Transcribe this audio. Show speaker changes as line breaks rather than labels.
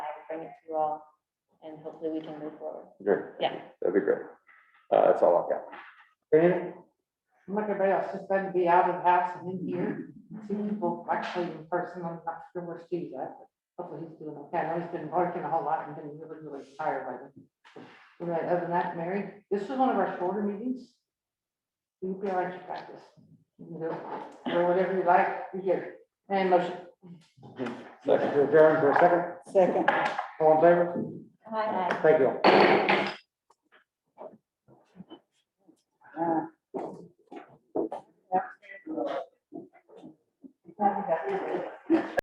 with you all, and hopefully we can move forward.
Great.
Yeah.
That'd be great. Uh, that's all I've got.
Brandon? I'm like everybody else, just glad to be out of the house and in here, see people actually in person, I'm not sure where Steve's at, but hopefully he's doing okay, I know he's been working a whole lot and been really, really tired by then. All Right, other than that, Mary, this was one of our shorter meetings. You can like to practice, you know, or whatever you like, you get it, and motion.
Second to adjourn for a second,
Second.
all in favor?
Hi.
Thank you.
uh,
Now we got it.